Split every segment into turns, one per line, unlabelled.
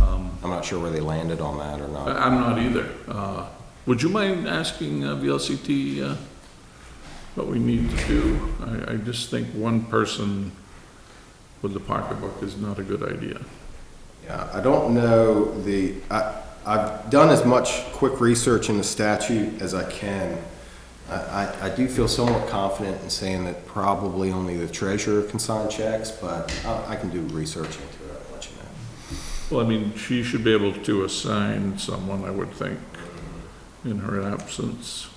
Um,
I'm not sure where they landed on that or
I-
not.
I'm not either. Uh, Would you mind asking uh, VLCT uh, what we need to do? I, I just think one person with the pocketbook is not a good idea.
Yeah, I don't know the, I, I've done as much quick research in the statute as I can. I, I, I do feel somewhat confident in saying that probably only the treasurer can sign checks, but I, I can do research into it, I'll let you know.
Well, I mean, she should be able to assign someone, I would think, in her absence.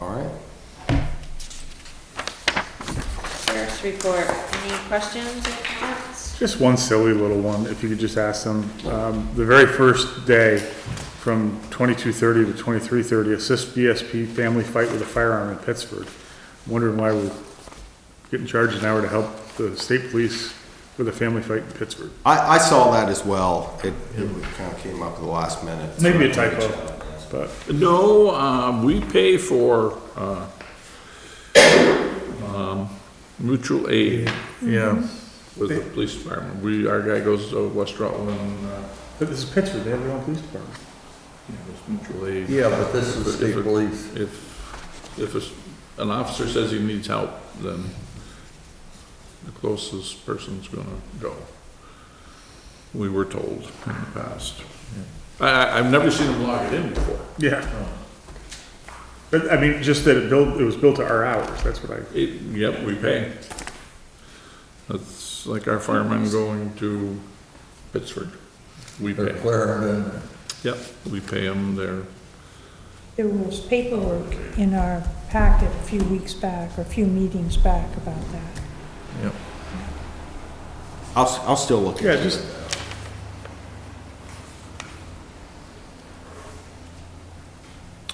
All right?
Sheriff's report, any questions or comments?
Just one silly little one, if you could just ask them. Um, The very first day, from 22:30 to 23:30, assist BSP family fight with a firearm in Pittsburgh. Wondering why we're getting charged an hour to help the state police with a family fight in Pittsburgh.
I, I saw that as well. It, it kind of came up at the last minute.
Maybe a typo, but
No, um, we pay for, uh, um, mutual aid
yeah.
with the police department. We, our guy goes to West Rutland, uh,
But this is Pittsburgh, they have their own police department.
you know, it's mutual aid.
Yeah, but this is
If
state
it-
police.
If, if it's- an officer says he needs help, then the closest person's gonna go. We were told in the past. I, I, I've never seen them log it in before.
Yeah. But, I mean, just that it built, it was built to our hours, that's what I,
It, yep, we pay. That's like our firemen going to Pittsburgh. We
They're
pay.
clearing in there.
Yep, we pay them their
There was paperwork in our packet a few weeks back, or a few meetings back about that.
I'll, s- I'll still look
yeah,
into
just,
it.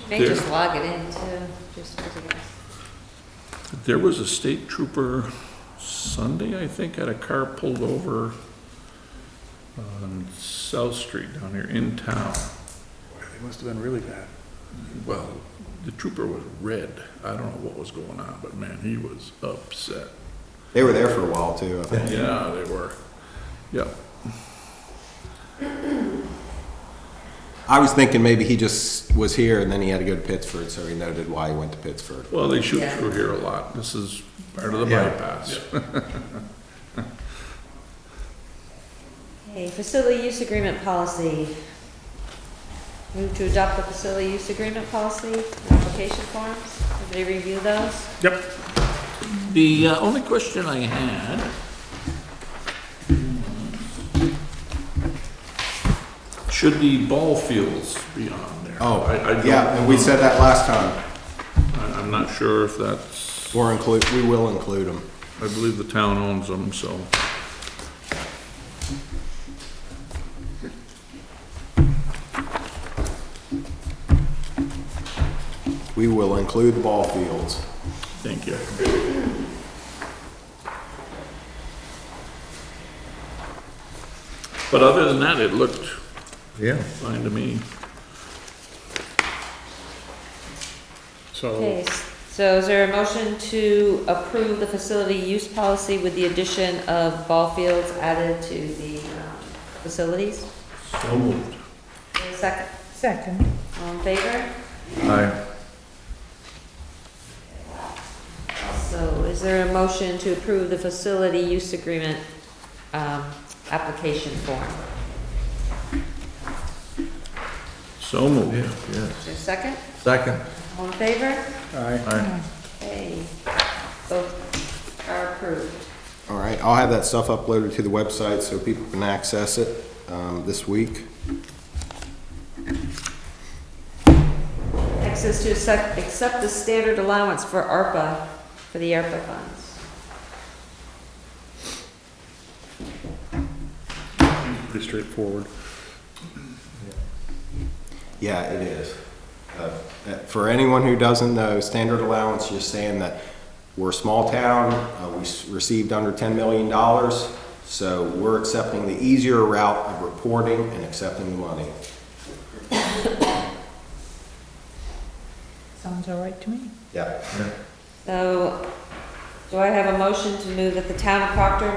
May
There.
just log it in too, just as a guess.
There was a state trooper Sunday, I think, had a car pulled over on South Street down here in town.
it must have been really bad.
Well, the trooper was red. I don't know what was going on, but man, he was upset.
They were there for a while too, I think.
Yeah, they were. Yep.
I was thinking maybe he just was here and then he had to go to Pittsford, so he noted why he went to Pittsford.
Well, they shoot
Yeah.
through here a lot. This is part of the
Yeah.
bypass.
Okay, facility use agreement policy. Move to adopt the facility use agreement policy, application forms, everybody review those?
Yep.
The uh, only question I had. Should the ball fields be on there?
Oh,
I- I don't
yeah, and we said that last time.
I- I'm not sure if that's,
Or include, we will include them.
I believe the town owns them, so.
We will include the ball fields.
Thank you. But other than that, it looked
Yeah.
fine to me.
So, Oh.
Okay, so is there a motion to approve the facility use policy with the addition of ball fields added to the um, facilities?
So moved.
Second,
Second.
all in favor?
Aye.
So is there a motion to approve the facility use agreement, um, application form?
So moved.
Is
Yes.
there a second?
Second.
All in favor?
Aye.
Okay, both are approved.
All right, I'll have that stuff uploaded to the website so people can access it um, this week.
Next is to accept, accept the standard allowance for ARPA, for the ARPA funds.
pretty straightforward.
Yeah, it is. Uh, uh, For anyone who doesn't know, standard allowance, just saying that we're a small town, uh, we s- received under $10 million, so we're accepting the easier route of reporting and accepting the money.
Sounds all right to me.
Yeah.
So, do I have a motion to move that the town of Proctor